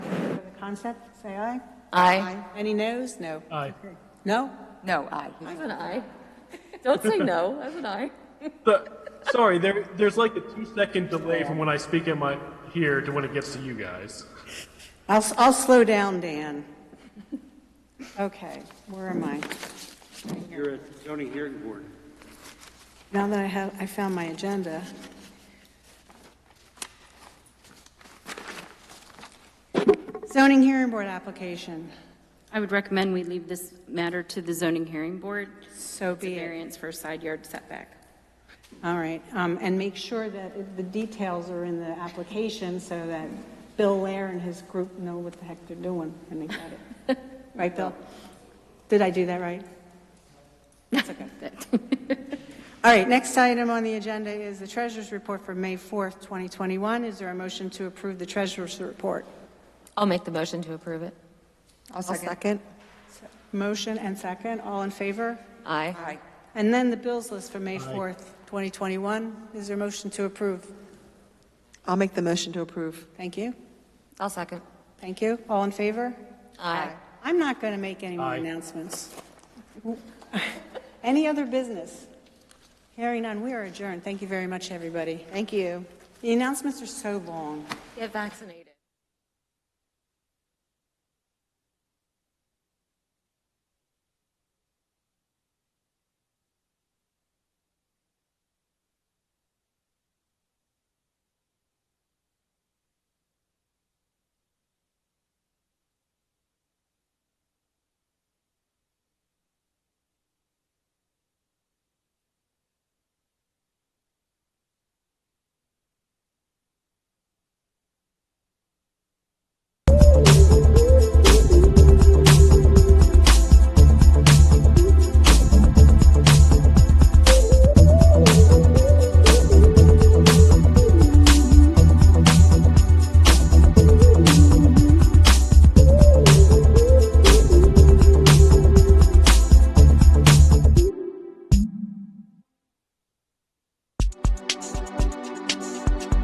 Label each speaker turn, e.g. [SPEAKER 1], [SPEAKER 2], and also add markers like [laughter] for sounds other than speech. [SPEAKER 1] concept, say aye.
[SPEAKER 2] Aye.
[SPEAKER 1] Any noes? No.
[SPEAKER 3] Aye.
[SPEAKER 1] No?
[SPEAKER 4] No, aye.
[SPEAKER 2] That's an aye. Don't say no, that's an aye.
[SPEAKER 3] But, sorry, there, there's like a two second delay from when I speak in my here to when it gets to you guys.
[SPEAKER 1] I'll, s- I'll slow down, Dan. [laughs] Okay, where am I?
[SPEAKER 5] You're a zoning hearing board.
[SPEAKER 1] Now that I have, I found my agenda. Zoning hearing board application,
[SPEAKER 6] I would recommend we leave this matter to the zoning hearing board.
[SPEAKER 1] so
[SPEAKER 6] It's a
[SPEAKER 1] be it.
[SPEAKER 6] variance for a side yard setback.
[SPEAKER 1] All right, um, and make sure that it- the details are in the application so that Bill Lair and his group know what the heck they're doing when they get it. Right, Bill? Did I do that right? [laughs] All right, next item on the agenda is the treasurer's report for May 4th, 2021. Is there a motion to approve the treasurer's report?
[SPEAKER 2] I'll make the motion to approve it.
[SPEAKER 4] I'll second.
[SPEAKER 1] Motion and second, all in favor?
[SPEAKER 2] Aye.
[SPEAKER 4] Aye.
[SPEAKER 1] And then the bills list for May 4th, 2021. Is there a motion to approve?
[SPEAKER 4] I'll make the motion to approve.
[SPEAKER 1] Thank you.
[SPEAKER 2] I'll second.
[SPEAKER 1] Thank you. All in favor?
[SPEAKER 2] Aye.
[SPEAKER 1] I'm not going to make any more
[SPEAKER 3] Aye.
[SPEAKER 1] announcements. [laughs] Any other business? Hearing none, we are adjourned. Thank you very much, everybody.
[SPEAKER 4] Thank you.
[SPEAKER 1] The announcements are so long.
[SPEAKER 2] Get vaccinated.